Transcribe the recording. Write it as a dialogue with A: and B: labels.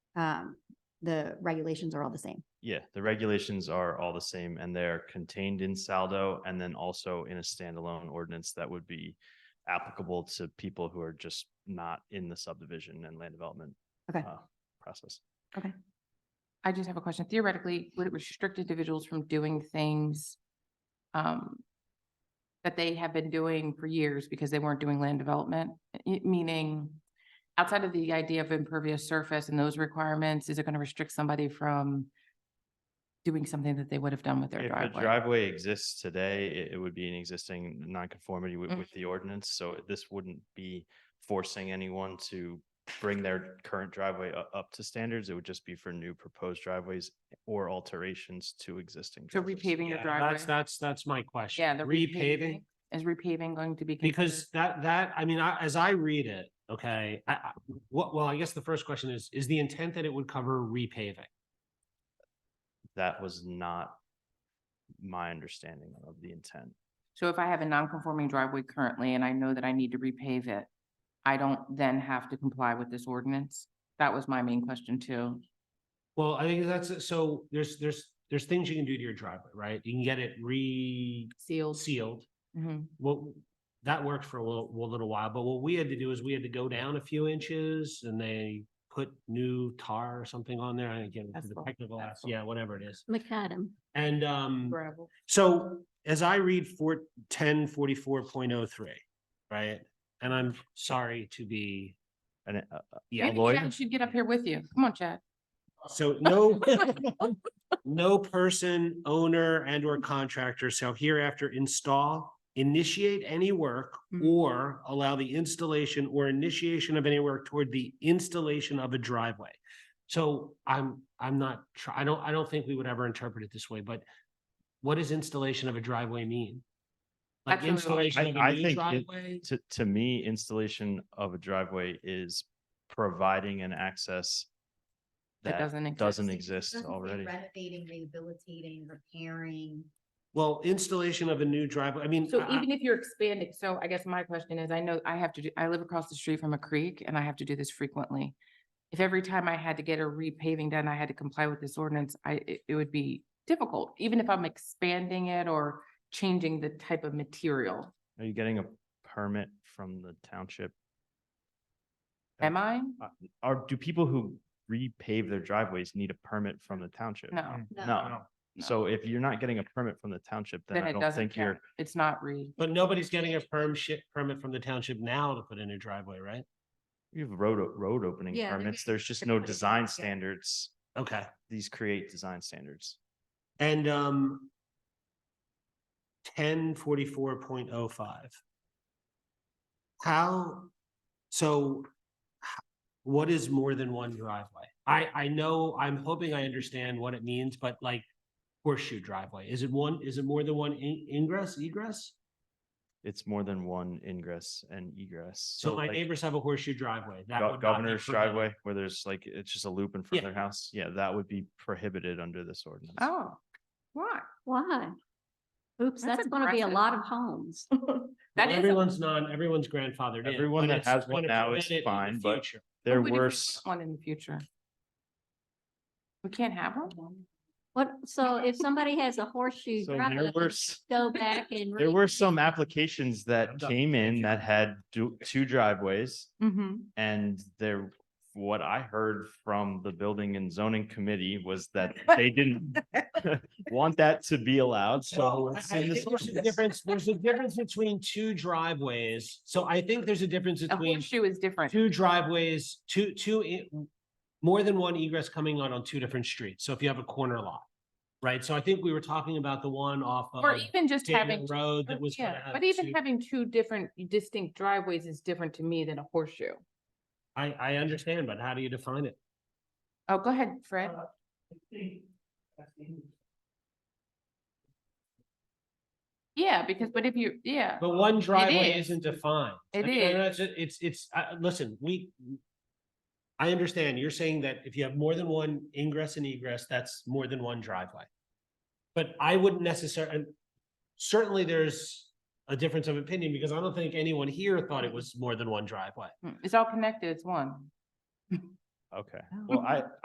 A: um, the regulations are all the same.
B: Yeah, the regulations are all the same and they're contained in Saldo and then also in a standalone ordinance that would be applicable to people who are just not in the subdivision and land development
A: Okay.
B: uh, process.
C: I just have a question. Theoretically, would it restrict individuals from doing things um, that they have been doing for years because they weren't doing land development? I- Meaning, outside of the idea of impervious surface and those requirements, is it going to restrict somebody from doing something that they would have done with their
B: If a
C: driveway?
B: driveway exists today, it, it would be an existing nonconformity with,
C: Mm.
B: with the ordinance. So this wouldn't be forcing anyone to bring their current driveway up, up to standards. It would just be for new proposed driveys or alterations to existing.
C: So
B: driveways.
C: repaving your
D: Yeah, That's,
C: driveway?
D: that's, that's my question.
C: Yeah, the
D: Repaving,
C: Is repaving going to be?
D: because
C: considered-
D: that, that, I mean, I, as I read it, okay, I, I, what, well, I guess the first question is, is the intent that it would cover repaving?
B: That was not my understanding of the intent.
C: So if I have a non-conforming driveway currently and I know that I need to repave it, I don't then have to comply with this ordinance? That was my main question too.
D: Well, I think that's, so there's, there's, there's things you can do to your driveway, right? You can get it re-sealed.
C: Sealed. Mhm.
D: Well, that worked for a little, a little while, but what we had to do is we had to go down a few inches and they put new tar or something on there. I get into the
C: Asphalt,
D: technical, as-
C: asphalt.
D: yeah, whatever it is.
A: Macadam.
D: And, um.
C: gravel.
D: So as I read four, ten forty-four point oh three, right? And I'm sorry to be,
B: And it- uh, uh,
D: yeah,
C: Maybe
B: Lloyd?
C: Chad should get up here with you. Come on, Chad.
D: so no. No person, owner and or contractor shall hereafter install, initiate any work.
C: Mhm.
D: Or allow the installation or initiation of any work toward the installation of a driveway. So I'm, I'm not, tr- I don't, I don't think we would ever interpret it this way, but what does installation of a driveway mean? Like
C: That's what we want.
D: installation of
B: I- I
D: a new
B: think it-
D: driveway?
B: to, to me, installation of a driveway is providing an access
C: That
B: that
C: doesn't.
B: doesn't
C: exist.
B: exist
E: Doesn't say
B: already.
E: Renovating, rehabilitating, repairing.
D: Well, installation of a new driveway, I mean.
C: So
D: I- I-
C: even if you're expanding, so I guess my question is, I know I have to do, I live across the street from a creek and I have to do this frequently. If every time I had to get a repaving done, I had to comply with this ordinance, I, it, it would be difficult, even if I'm expanding it or changing the type of material.
B: Are you getting a permit from the township?
C: Am I?
B: Or do people who repave their driveways need a permit from the township?
C: No.
B: No. So if you're not getting a permit from the township, then
C: Then
B: I
C: it
B: don't
C: doesn't
B: think you're,
C: count. It's not re.
D: But nobody's getting a perm shi- permit from the township now to put in a driveway, right?
B: you have road, o- road opening
E: Yeah, they're
B: permits.
E: getting
B: There's just
E: different
B: no
E: kind of
B: design
E: permits, yeah.
B: standards.
D: Okay,
B: These create design standards.
D: and, um. Ten forty-four point oh five. How, so. h- What is more than one driveway? I, I know, I'm hoping I understand what it means, but like horseshoe driveway, is it one, is it more than one in- ingress, egress?
B: It's more than one ingress and egress.
D: So my
B: like,
D: neighbors have a horseshoe driveway. that
B: Go-
D: would not be
B: Governor's
D: permitted.
B: driveway where there's like, it's just a loop in front of their house. Yeah, that would be prohibited under this ordinance.
C: Oh, why?
A: Why? Oops,
C: That's
A: that's gonna be a
C: aggressive.
A: lot of homes.
C: That
D: Well,
C: is a-
D: Everyone's not, everyone's grandfathered in.
B: Everyone
D: but
B: that
D: it's
B: has one
D: gonna
B: now is
D: prevent it in the
B: fine, but-
D: future.
B: There
C: What would if we
B: were,
C: put
B: s-
C: One in the future. We can't have one?
A: What, so if somebody has a horseshoe
B: so there
A: driveway,
B: were, s-
A: go back and.
B: there were some applications
D: I'm
B: that
D: done.
B: came in
D: you.
B: that had du- two driveways.
C: Mm-hmm.
B: And there, what I heard from the building and zoning committee was that they didn't want that to be allowed, so.
D: I-
B: it's
D: I
B: in this
D: think There's a
B: ordinance.
D: difference, there's a difference between two driveways. So I think there's a difference
C: A
D: between
C: horseshoe is different.
D: two driveways, two, two, e- more than one egress coming out on two different streets. So if you have a corner lot. Right? So I think we were talking about the one off of
C: Or even just having,
D: Dayton Road that
C: or-
D: was. gonna
C: yeah,
D: have
C: but even
D: two-
C: having two different distinct driveways is different to me than a horseshoe.
D: I, I understand, but how do you define it?
C: Oh, go ahead, Fred.
D: Uh,
C: Yeah, because, but if you, yeah,
D: But one driveway
C: is.
D: isn't defined.
C: It
D: I mean, I know
C: is.
D: It's, it's, it's, uh, listen, we. I understand, you're saying that if you have more than one ingress and egress, that's more than one driveway. But I wouldn't necessarily, certainly there's a difference of opinion, because I don't think anyone here thought it was more than one driveway.
C: Mm, it's all connected, it's one.
B: Okay, well, I,